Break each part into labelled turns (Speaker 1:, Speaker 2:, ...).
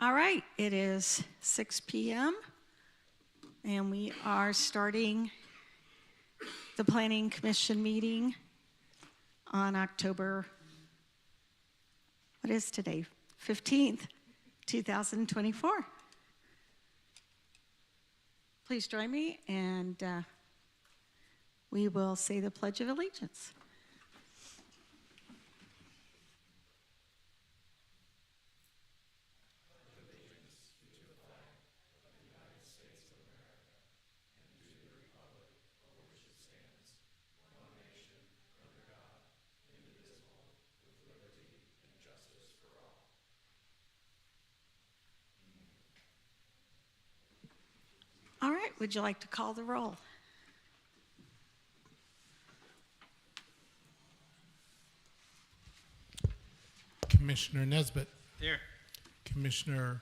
Speaker 1: All right, it is 6 PM, and we are starting the Planning Commission meeting on October, what is today? 15th, 2024. Please join me, and uh, we will say the Pledge of Allegiance. All right, would you like to call the roll?
Speaker 2: Commissioner Nesbitt,
Speaker 3: Here.
Speaker 2: Commissioner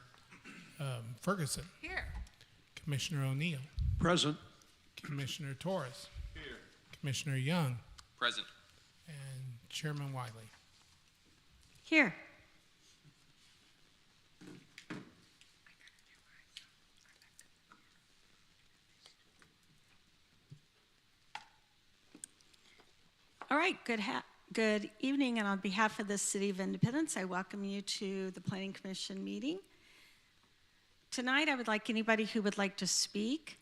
Speaker 2: um, Ferguson,
Speaker 1: Here.
Speaker 2: Commissioner O'Neill,
Speaker 3: Present.
Speaker 2: Commissioner Torres, Commissioner Young,
Speaker 3: Present.
Speaker 2: and Chairman Wiley.
Speaker 1: Here. All right, good ha, good evening, and on behalf of the City of Independence, I welcome you to the Planning Commission meeting. Tonight, I would like anybody who would like to speak,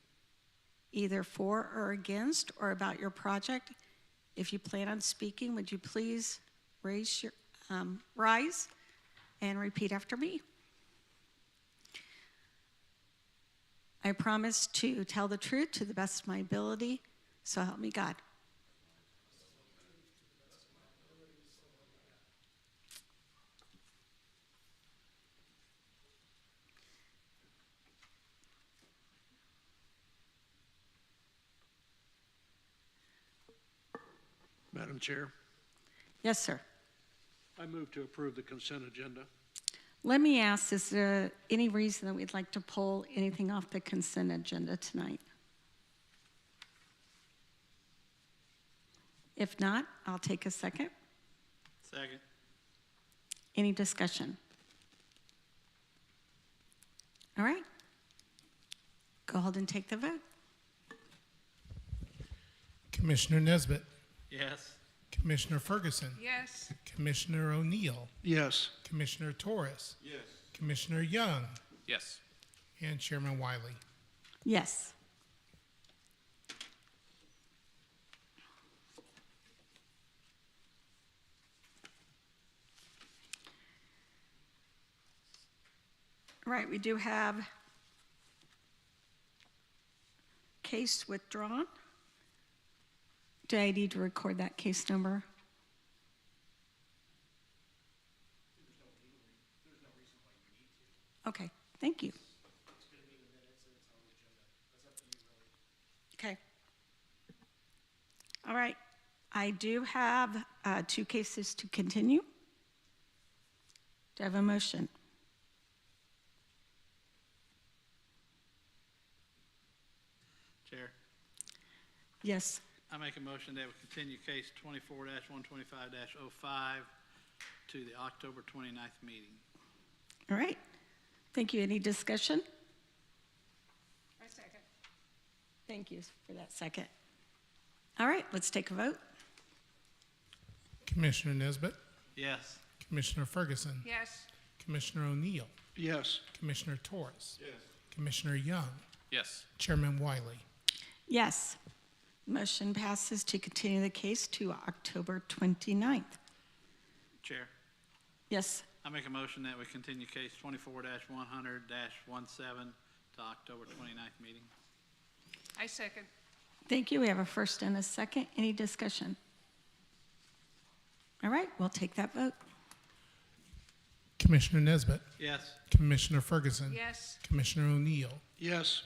Speaker 1: either for or against, or about your project. If you plan on speaking, would you please raise your, um, rise and repeat after me? I promise to tell the truth to the best of my ability, so help me God.
Speaker 4: Madam Chair,
Speaker 1: Yes, sir.
Speaker 4: I move to approve the consent agenda.
Speaker 1: Let me ask, is there any reason that we'd like to pull anything off the consent agenda tonight? If not, I'll take a second.
Speaker 3: Second.
Speaker 1: Any discussion? All right. Go ahead and take the vote.
Speaker 2: Commissioner Nesbitt,
Speaker 3: Yes.
Speaker 2: Commissioner Ferguson,
Speaker 5: Yes.
Speaker 2: Commissioner O'Neill,
Speaker 4: Yes,
Speaker 2: Commissioner Torres, Commissioner Young,
Speaker 3: Yes.
Speaker 2: and Chairman Wiley.
Speaker 1: Yes. Right, we do have case withdrawn. Do I need to record that case number? Okay, thank you. Okay. All right. I do have uh, two cases to continue. Do I have a motion?
Speaker 6: Chair,
Speaker 1: Yes.
Speaker 6: I make a motion that we continue case twenty-four one twenty-five 5 to the October 29th meeting.
Speaker 1: All right. Thank you. Any discussion?
Speaker 5: I second.
Speaker 1: Thank you for that second. All right, let's take a vote.
Speaker 2: Commissioner Nesbitt,
Speaker 6: Yes.
Speaker 2: Commissioner Ferguson,
Speaker 5: Yes.
Speaker 2: Commissioner O'Neill,
Speaker 4: yes,
Speaker 2: Commissioner Torres, Commissioner Young,
Speaker 3: Yes.
Speaker 2: Chairman Wiley.
Speaker 1: Yes. Motion passes to continue the case to October 29th.
Speaker 6: Chair,
Speaker 1: Yes.
Speaker 6: I make a motion that we continue case twenty-four one hundred 17 to October 29th meeting.
Speaker 5: I second.
Speaker 1: Thank you. We have a first and a second. Any discussion? All right, we'll take that vote.
Speaker 2: Commissioner Nesbitt,
Speaker 6: Yes.
Speaker 2: Commissioner Ferguson,
Speaker 5: Yes.
Speaker 2: Commissioner O'Neill,
Speaker 4: yes,